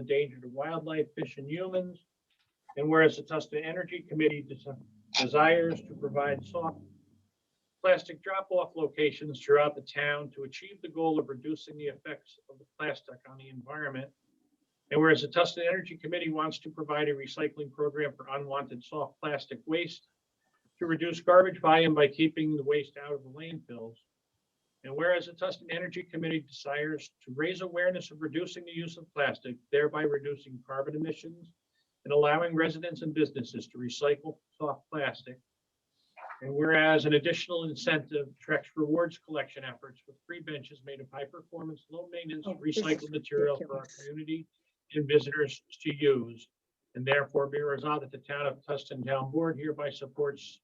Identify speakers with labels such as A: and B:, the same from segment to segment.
A: the danger to wildlife, fish, and humans. And whereas the Tustin Energy Committee des- desires to provide soft plastic drop-off locations throughout the town to achieve the goal of reducing the effects of the plastic on the environment. And whereas the Tustin Energy Committee wants to provide a recycling program for unwanted soft plastic waste to reduce garbage volume by keeping the waste out of the landfills. And whereas the Tustin Energy Committee desires to raise awareness of reducing the use of plastic, thereby reducing carbon emissions and allowing residents and businesses to recycle soft plastic. And whereas an additional incentive tracks rewards collection efforts with free benches made of high-performance, low-maintenance
B: Oh, this is
A: recycled material for our
B: ridiculous.
A: community and visitors to use. And therefore be resolved that the town of Tustin Town Board hereby supports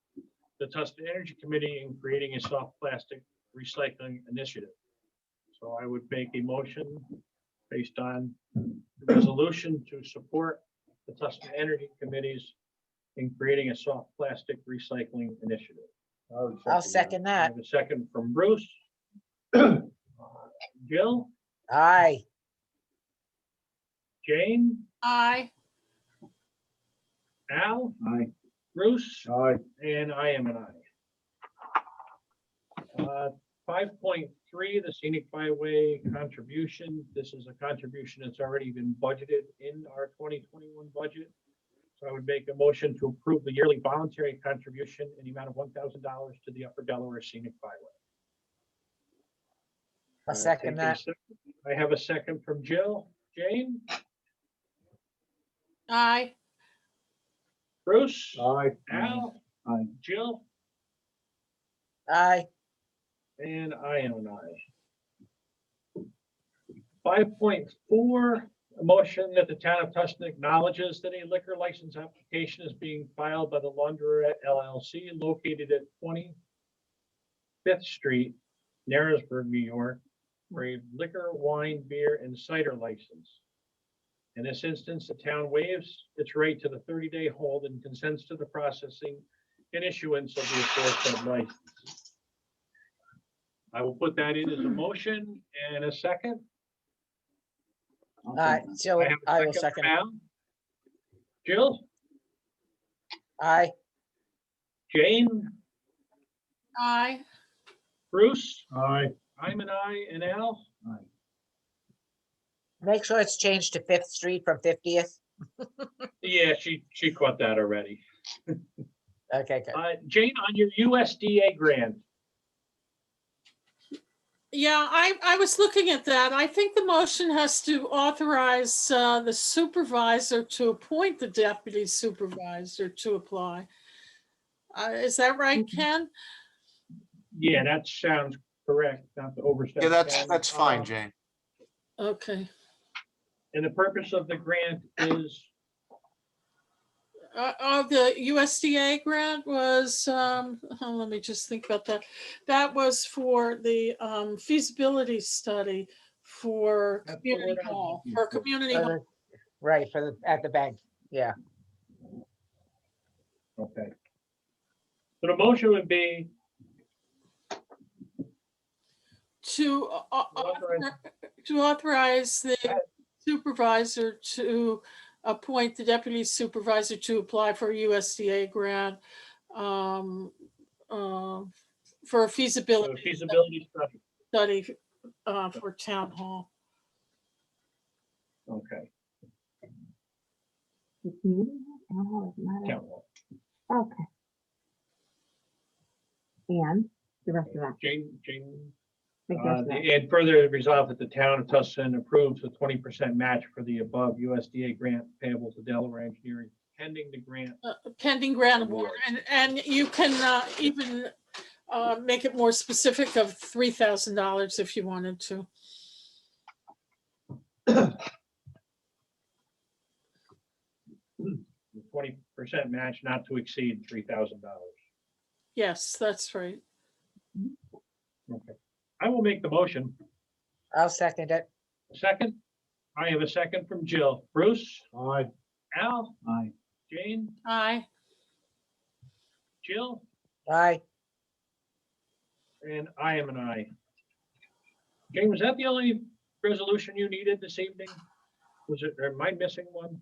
A: the Tustin Energy Committee in creating a soft plastic recycling initiative. So I would make a motion based on the resolution to support the Tustin Energy Committees in creating a soft plastic recycling initiative.
C: I'll second
A: I
C: that.
A: have a second from Bruce. Uh, Jill,
C: Aye.
A: Jane,
D: Aye.
A: Al,
E: Aye.
A: Bruce,
E: Aye.
A: and I am an aye. Five point three, the scenic byway contribution. This is a contribution that's already been budgeted in our twenty twenty-one budget. So I would make a motion to approve the yearly voluntary contribution in the amount of one thousand dollars to the Upper Delaware Scenic Byway.
C: I'll second
A: Take a
C: that.
A: sec- I have a second from Jill. Jane,
D: Aye.
A: Bruce,
E: Aye.
A: Al,
E: Aye.
A: Jill,
C: Aye.
A: And I am an aye. Five point four, a motion that the town of Tustin acknowledges that a liquor license application is being filed by the Laundrette LLC located at twenty Fifth Street, Narrowsburg, New York, for a liquor, wine, beer, and cider license. In this instance, the town waives its right to the thirty-day hold and consents to the processing and issuance of the aforesaid license. I will put that in as a motion and a second.
E: I'll
C: Aye.
E: second
C: So
A: have a
C: I will second. it.
A: now. Jill,
C: Aye.
A: Jane,
D: Aye.
A: Bruce,
E: that. Aye.
A: I'm an I, and Al.
E: Aye.
C: Make sure it's changed to Fifth Street from Fiftieth.
A: Yeah, she, she caught that already.
C: Okay, good.
A: Uh, Jane, on your USDA grant,
D: Yeah, I, I was looking at that. I think the motion has to authorize uh, the supervisor to appoint the deputy supervisor to apply. Uh, Is that right, Ken?
A: yeah, that sounds correct, not to overstep.
F: Yeah, that's,
A: bounds.
F: that's
A: Uh,
F: fine, Jane.
D: Okay.
A: And the purpose of the grant is,
D: Uh, uh, the USDA grant was, um, oh, let me just think about that. That was for the, um, feasibility study for
A: That's the
D: community
A: word I was
D: hall,
A: looking
D: for
A: for.
D: community
C: For
D: hall.
C: the- Right, for the, at the bank.
A: okay. So the motion would be,
D: To, uh, au- au-
A: Authorize-
D: author- to authorize the supervisor to appoint the deputy supervisor to apply for a USDA grant um, uh, for a
A: uh,
D: feasibility
A: feasibility study.
D: study uh, for town hall.
A: Okay.
B: It's meeting, town hall is not
A: town hall.
B: a- Okay. And the rest of that.
A: Jane, Jane.
B: make the
A: Uh,
B: rest of that.
A: And further resolve that the town of Tustin approves a twenty percent match for the above USDA grant payable to Delaware Engineering pending the grant.
D: Uh, Pending grant
A: Award.
D: award, and, and you can uh, even uh, make it more specific of $3,000 if you wanted to.
A: Twenty percent match not to exceed three thousand dollars.
D: Yes, that's right.
A: Okay. I will make the motion.
C: I'll second it.
A: Second, I have a second from Jill. Bruce,
E: Aye.
A: Al,
E: Aye.
A: Jane,
D: Aye.
A: Jill,
C: Aye.
A: and I am an I. Jane, was that the only resolution you needed this evening? Was it, am I missing one?